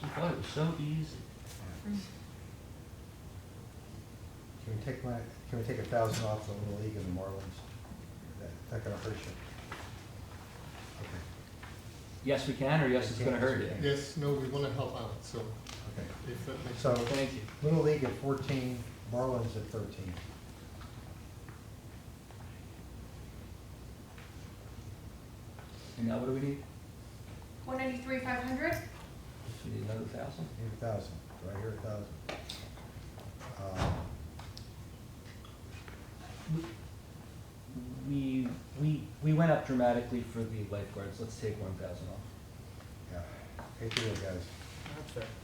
She thought it was so easy. Can we take my, can we take a thousand off the Little League of the Marlins? That, that gonna hurt you. Okay, Yes, we can, or yes, it's gonna hurt you. Yes, no, we want to help out, so okay. if that makes. So, Thank you. Little League at fourteen, Marlins at thirteen. And now what do we need? One ninety-three, five hundred? We need another thousand? Need a thousand, Um, do I hear a thousand? We, we, we went up dramatically for the lifeguards, let's take one thousand off. Yeah, hate to do it, guys.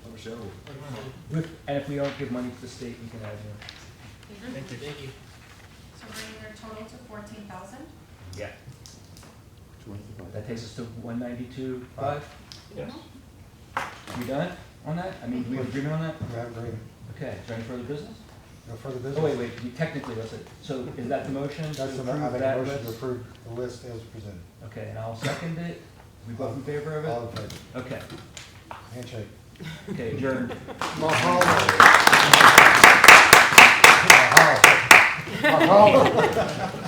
And if we don't give money to the state, we can add more. Thank you. So bringing their total to fourteen thousand? Yeah. That takes us to one ninety-two, five? Yes. We done on that? I mean, we agreement on that? Do I have a agreement? Okay, is there any further business? No further Oh, wait, business? wait, you technically, that's it. So is that the motion? to That's, the- I approve make a that motion to list? approve the list as presented. Okay, and I'll second it. We both in favor of All it? in favor? Okay, Handshake. okay, adjourned. Mahalo. Mahalo.